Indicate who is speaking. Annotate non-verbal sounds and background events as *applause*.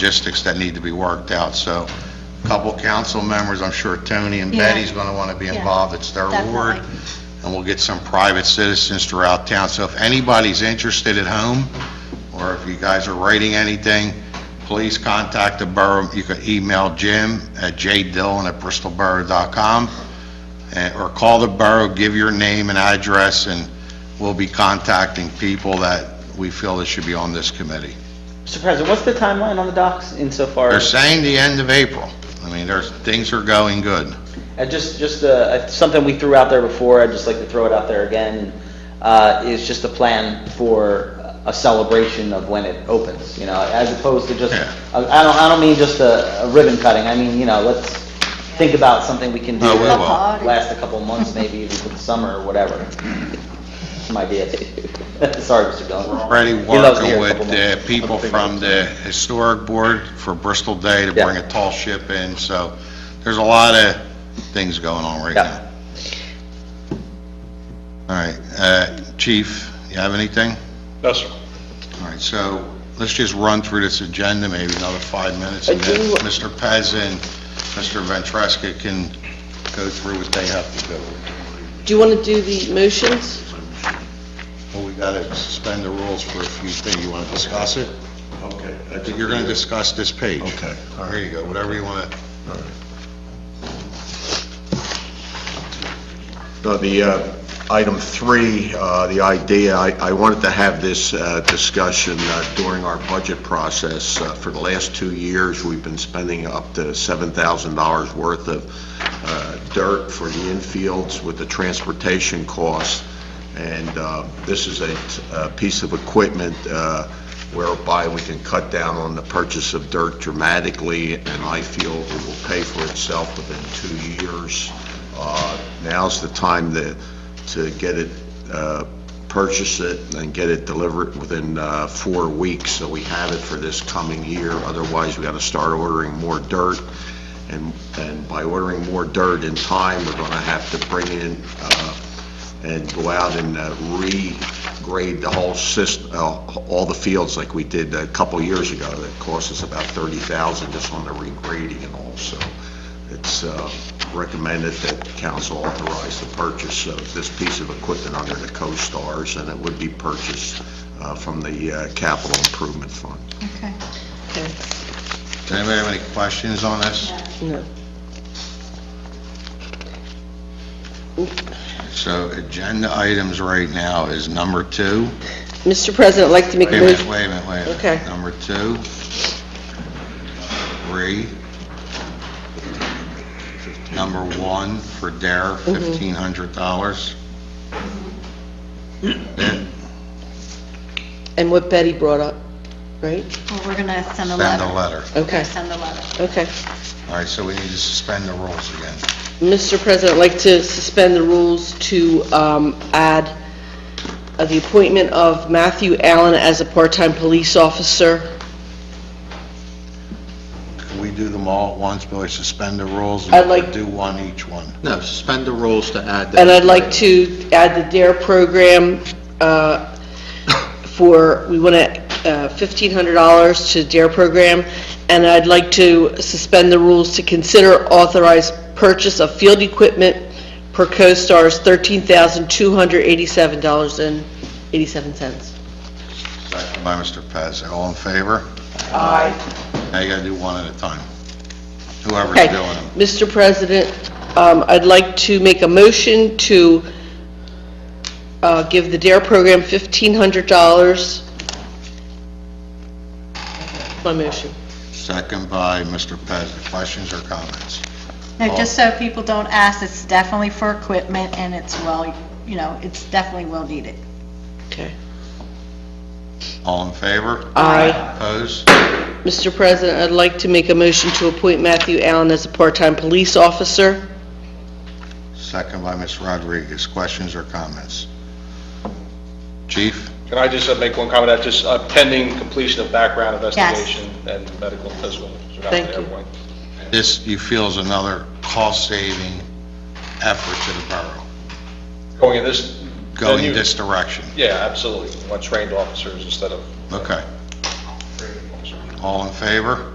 Speaker 1: logistics that need to be worked out, so a couple council members, I'm sure Tony and
Speaker 2: Yeah.
Speaker 1: Betty's going to want to be
Speaker 2: Yeah,
Speaker 1: involved, it's their ward,
Speaker 2: definitely.
Speaker 1: and we'll get some private citizens throughout town, so if anybody's interested at home, or if you guys are writing anything, please contact the borough, you can email Jim at jdillon@bristolborough.com, and- or call the borough, give your name and address, and we'll be contacting people that we feel that should be on this committee.
Speaker 3: Mr. President, what's the timeline on the docks insofar
Speaker 1: They're
Speaker 3: as,
Speaker 1: saying the end of April. I mean, there's, things are going good.
Speaker 3: uh, just, just uh, something we threw out there before, I'd just like to throw it out there again, uh, is just a plan for a celebration of when it opens, you know, as opposed to just,
Speaker 1: Yeah.
Speaker 3: I I don't, I don't mean just a a ribbon cutting, I mean, you know, let's think about something we can do.
Speaker 1: No, we
Speaker 3: that
Speaker 1: will.
Speaker 2: Party.
Speaker 3: Last a couple of months, maybe even for the summer or whatever. Some ideas. *laughs* Sorry, Mr. Dillon.
Speaker 1: Already
Speaker 3: He loves to hear
Speaker 1: working with
Speaker 3: a couple
Speaker 1: the
Speaker 3: months.
Speaker 1: people from the Historic Board for Bristol Day to
Speaker 3: Yeah.
Speaker 1: bring a tall ship in, so there's a lot of things going on right
Speaker 3: Yeah.
Speaker 1: now. All right, uh, Chief, you have anything?
Speaker 4: No, sir.
Speaker 1: All right, so let's just run through this agenda, maybe another five minutes, and
Speaker 3: I
Speaker 1: then
Speaker 3: do-
Speaker 1: Mr. Pez and Mr. Ventreska can go through what they have to go with.
Speaker 5: Do you want to do the motions?
Speaker 1: Well, we got to suspend the rules for a few things. You want to discuss it?
Speaker 4: Okay. I
Speaker 1: But You're going to discuss this page.
Speaker 4: Okay.
Speaker 1: There you go, whatever you want to.
Speaker 4: No, the, uh, item three, uh, the idea, I I wanted to have this uh, discussion uh, during our budget process. Uh, For the last two years, we've been spending up to $7,000 worth of uh, dirt for the infields with the transportation costs. And uh, this is a t- a piece of equipment uh, whereby we can cut down on the purchase of dirt dramatically, and I feel it will pay for itself within two years. Uh, Now's the time to, to get it, uh, purchase it and get it delivered within uh, four weeks, so we have it for this coming year. Otherwise, we got to start ordering more dirt. And, and by ordering more dirt in time, we're going to have to bring in uh, and go out and uh, regrade the whole system, all the fields like we did a couple years ago. That cost us about 30000 just on the regrading and all, so it's uh, recommended that council authorize the purchase of this piece of equipment under the co-stars, and it would be purchased uh, from the uh, capital improvement fund.
Speaker 2: Okay.
Speaker 1: Does anybody have any questions on this?
Speaker 5: No.
Speaker 1: So agenda items right now is number two.
Speaker 5: Mr. President, I'd like to make
Speaker 1: Wait
Speaker 5: a
Speaker 1: a minute,
Speaker 5: motion.
Speaker 1: wait a minute, wait a minute.
Speaker 5: Okay.
Speaker 1: Number two, three, number one for Dare,
Speaker 5: Mm-hmm.
Speaker 1: $1,500. Then
Speaker 5: And what Betty brought up, right?
Speaker 2: Well, we're gonna send a letter.
Speaker 1: Send a letter.
Speaker 2: We're gonna
Speaker 5: Okay.
Speaker 2: Send a Oh. letter.
Speaker 5: Okay.
Speaker 1: All right, so we need to suspend the rules again.
Speaker 5: Mr. President, I'd like to suspend the rules to um, add uh, the appointment of Matthew Allen as a part-time police officer.
Speaker 1: Can we do them all at once, Billy, suspend the rules? and
Speaker 5: I'd like-
Speaker 1: Do one each one.
Speaker 6: No, suspend the rules to add that.
Speaker 5: And I'd like to add the DARE program uh, for, we uh, want to, $1,500 to DARE program, and I'd like to suspend the rules to consider authorized purchase of field equipment per CoStar's $13,287.87.
Speaker 1: Second by Mr. Pez. All in favor?
Speaker 5: Aye.
Speaker 1: Now you gotta do one at a time. Whoever's
Speaker 5: Okay,
Speaker 1: doing them.
Speaker 5: Mr. President, um, I'd like to make a motion to uh, give the DARE program $1,500. My motion.
Speaker 1: Second by Mr. Pez. Questions or comments?
Speaker 2: Now, just so people don't ask, it's definitely for equipment and it's well, you know, it's definitely well needed.
Speaker 5: Okay.
Speaker 1: All in favor?
Speaker 5: Aye.
Speaker 1: Opposed?
Speaker 5: Mr. President, I'd like to make a motion to appoint Matthew Allen as a part-time police officer.
Speaker 1: Second by Ms. Rodriguez. Questions or comments? Chief?
Speaker 7: Can I just uh, make one comment, that's just uh, pending completion of background
Speaker 2: Yes.
Speaker 7: investigation and medical and physical. So that's
Speaker 5: Thank
Speaker 7: what
Speaker 5: you.
Speaker 7: everyone-
Speaker 1: This, you feel, is another cost-saving effort to the borough,
Speaker 7: Going in this, Then
Speaker 1: going
Speaker 7: you-
Speaker 1: this direction.
Speaker 7: yeah, absolutely, We want trained officers instead of
Speaker 1: Okay.
Speaker 7: training officers.
Speaker 1: All in favor?